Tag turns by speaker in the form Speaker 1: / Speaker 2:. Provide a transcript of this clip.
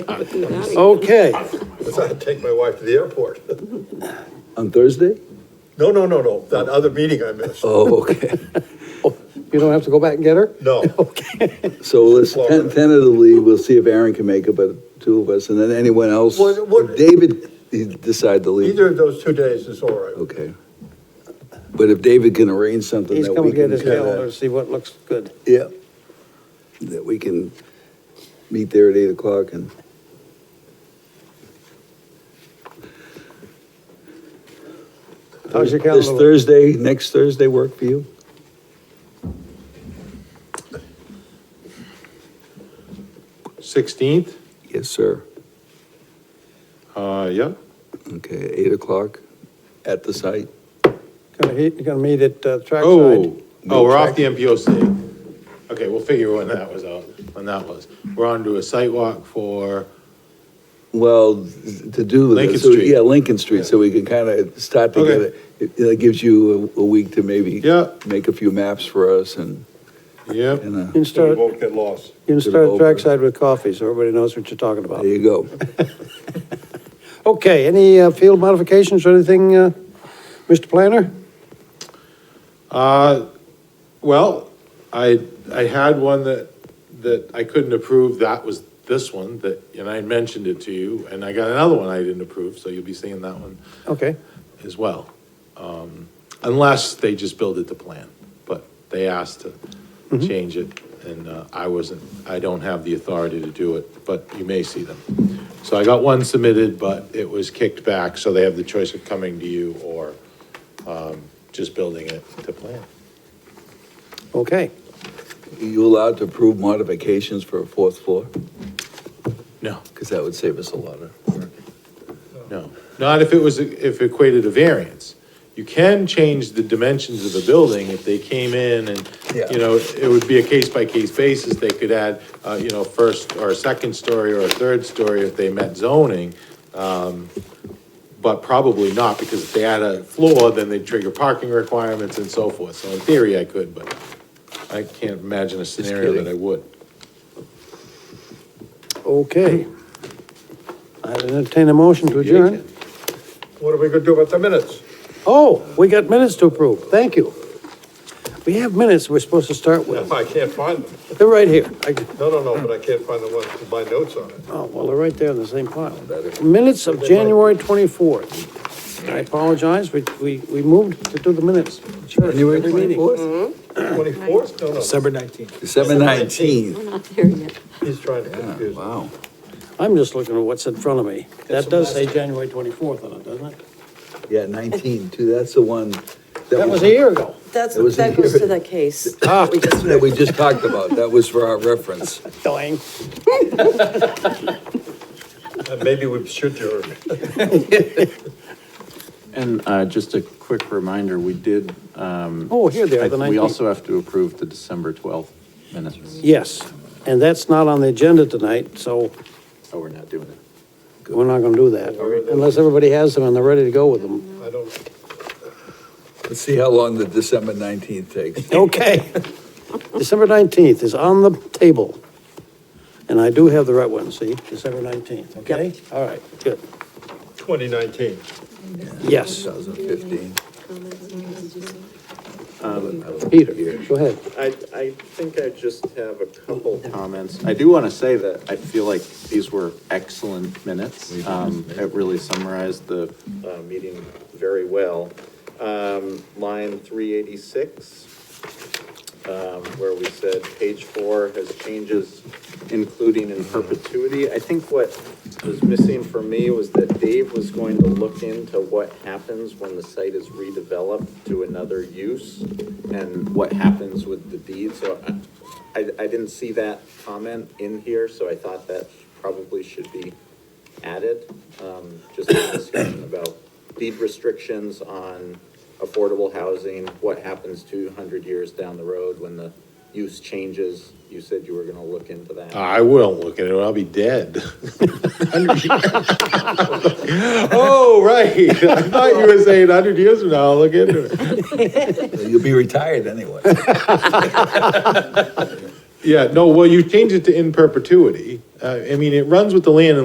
Speaker 1: Oh, Okay,
Speaker 2: It's not take my wife to the airport.
Speaker 3: On Thursday?
Speaker 2: No, no, no, no, that other meeting I missed.
Speaker 3: Oh, okay.
Speaker 1: you don't have to go back and get her?
Speaker 2: No,
Speaker 3: So let's
Speaker 2: Florida.
Speaker 3: ten- tentatively, we'll see if Aaron can make it, but two of us, and then anyone else.
Speaker 2: What- what-
Speaker 3: If David, he decide to leave.
Speaker 2: either of those two days is all right.
Speaker 3: Okay. But if David can arrange something
Speaker 1: He's
Speaker 3: that
Speaker 1: gonna
Speaker 3: we
Speaker 1: get
Speaker 3: can.
Speaker 1: his
Speaker 3: kinda-
Speaker 1: calendar, see what looks good.
Speaker 3: Yeah. That we can meet there at eight o'clock and.
Speaker 1: How's your
Speaker 3: Does
Speaker 1: calendar? look?
Speaker 3: Thursday, next Thursday work for you?
Speaker 4: Sixteenth,
Speaker 3: Yes, sir.
Speaker 4: uh, yeah,
Speaker 3: Okay, eight o'clock at the site.
Speaker 1: Gonna, he- you're gonna meet at uh,
Speaker 4: oh,
Speaker 1: Trackside?
Speaker 4: oh, we're off the MPOC. Okay, we'll figure when that was out, when that was. We're on to a sidewalk for,
Speaker 3: Well, to do. with it,
Speaker 4: Lincoln
Speaker 3: so-
Speaker 4: Street.
Speaker 3: Yeah, Lincoln Street, so we can kind of start to get
Speaker 4: Okay.
Speaker 3: it. It- That gives you a, a week to maybe.
Speaker 4: Yeah.
Speaker 3: Make a few maps for us and,
Speaker 4: yep,
Speaker 3: and, uh,
Speaker 1: You can
Speaker 2: So we
Speaker 1: start, you
Speaker 2: won't get lost.
Speaker 1: can
Speaker 3: Get it
Speaker 1: start
Speaker 3: over.
Speaker 1: Trackside with coffee, so everybody knows what you're talking about.
Speaker 3: there you go.
Speaker 1: Okay, any uh, field modifications or anything, uh, Mr. Planner?
Speaker 4: uh, well, I, I had one that, that I couldn't approve, that was this one, that, and I mentioned it to you, and I got another one I didn't approve, so you'll be seeing that one
Speaker 1: Okay,
Speaker 4: as well. Um, Unless they just build it to plan, but they asked to change it, and uh, I wasn't, I don't have the authority to do it, but you may see them. So I got one submitted, but it was kicked back, so they have the choice of coming to you or um, just building it to plan.
Speaker 1: okay.
Speaker 3: You allowed to approve modifications for a fourth floor?
Speaker 4: No,
Speaker 3: Because that would save us a lot of work.
Speaker 4: no, not if it was, if it equated a variance. You can change the dimensions of the building if they came in and,
Speaker 3: Yeah.
Speaker 4: you know, it would be a case-by-case basis. They could add, uh, you know, first or a second story or a third story if they met zoning. um, But probably not, because if they add a floor, then they trigger parking requirements and so forth. So in theory, I could, but I can't imagine a scenario that
Speaker 3: kidding.
Speaker 4: I would.
Speaker 1: Okay. I entertain a motion to
Speaker 4: Yeah, you
Speaker 1: adjourn.
Speaker 2: What are we gonna do about the minutes?
Speaker 1: Oh, we got minutes to approve, thank you. We have minutes we're supposed to start with.
Speaker 2: I can't find them.
Speaker 1: They're right here. I-
Speaker 2: No, no, no, but I can't find the ones with my notes on it.
Speaker 1: Oh, well, they're right there in the same pile. Minutes of January 24th. I apologize, we, we, we moved to do the minutes. Sure.
Speaker 3: January
Speaker 1: every meeting.
Speaker 3: twenty-fourth?
Speaker 2: Twenty-fourth? No, no,
Speaker 1: Mm-hmm.
Speaker 3: December nineteenth.
Speaker 5: Not there yet.
Speaker 2: he's trying to confuse me.
Speaker 3: Wow.
Speaker 1: I'm just looking at what's in front of me. That does say January 24th on it, doesn't it?
Speaker 3: Yeah, nineteen, too, that's the one.
Speaker 1: That was a year ago.
Speaker 5: That's,
Speaker 3: It was
Speaker 5: that
Speaker 3: in
Speaker 5: goes to
Speaker 3: here.
Speaker 5: the case.
Speaker 1: Ah.
Speaker 5: We just
Speaker 3: That we just talked about, that was for our reference.
Speaker 1: Dying.
Speaker 2: And Maybe we should adjourn.
Speaker 6: And uh, just a quick reminder, we did,
Speaker 1: Oh, here they are,
Speaker 6: I-
Speaker 1: the
Speaker 6: we
Speaker 1: 19th.
Speaker 6: also have to approve the December 12th minutes.
Speaker 1: Yes, and that's not on the agenda tonight, so
Speaker 6: Oh, we're not doing it.
Speaker 1: we're not gonna do that. Unless everybody has them and they're ready to go with them.
Speaker 2: I don't,
Speaker 3: Let's see how long the December nineteenth takes.
Speaker 1: Okay. December 19th is on the table. And I do have the right one, see, December 19th, okay? All right, good.
Speaker 2: twenty nineteen.
Speaker 1: Yes,
Speaker 3: Two thousand fifteen.
Speaker 1: Peter, go ahead.
Speaker 6: I, I think I just have a couple comments. I do want to say that I feel like these were excellent minutes. Um, It really summarized the uh, meeting very well. Um, Line 386, um, where we said page four has changes including in perpetuity. I think what was missing for me was that Dave was going to look into what happens when the site is redeveloped to another use and what happens with the deed. So I, I I didn't see that comment in here, so I thought that probably should be added. Um, Just a discussion about deed restrictions on affordable housing, what happens two hundred years down the road when the use changes. You said you were gonna look into that.
Speaker 4: I won't look at it, I'll be dead. Oh, right, I thought you were saying hundred years from now, I'll look into it.
Speaker 3: You'll be retired anyway.
Speaker 4: Yeah, no, well, you change it to in perpetuity. Uh, I mean, it runs with the land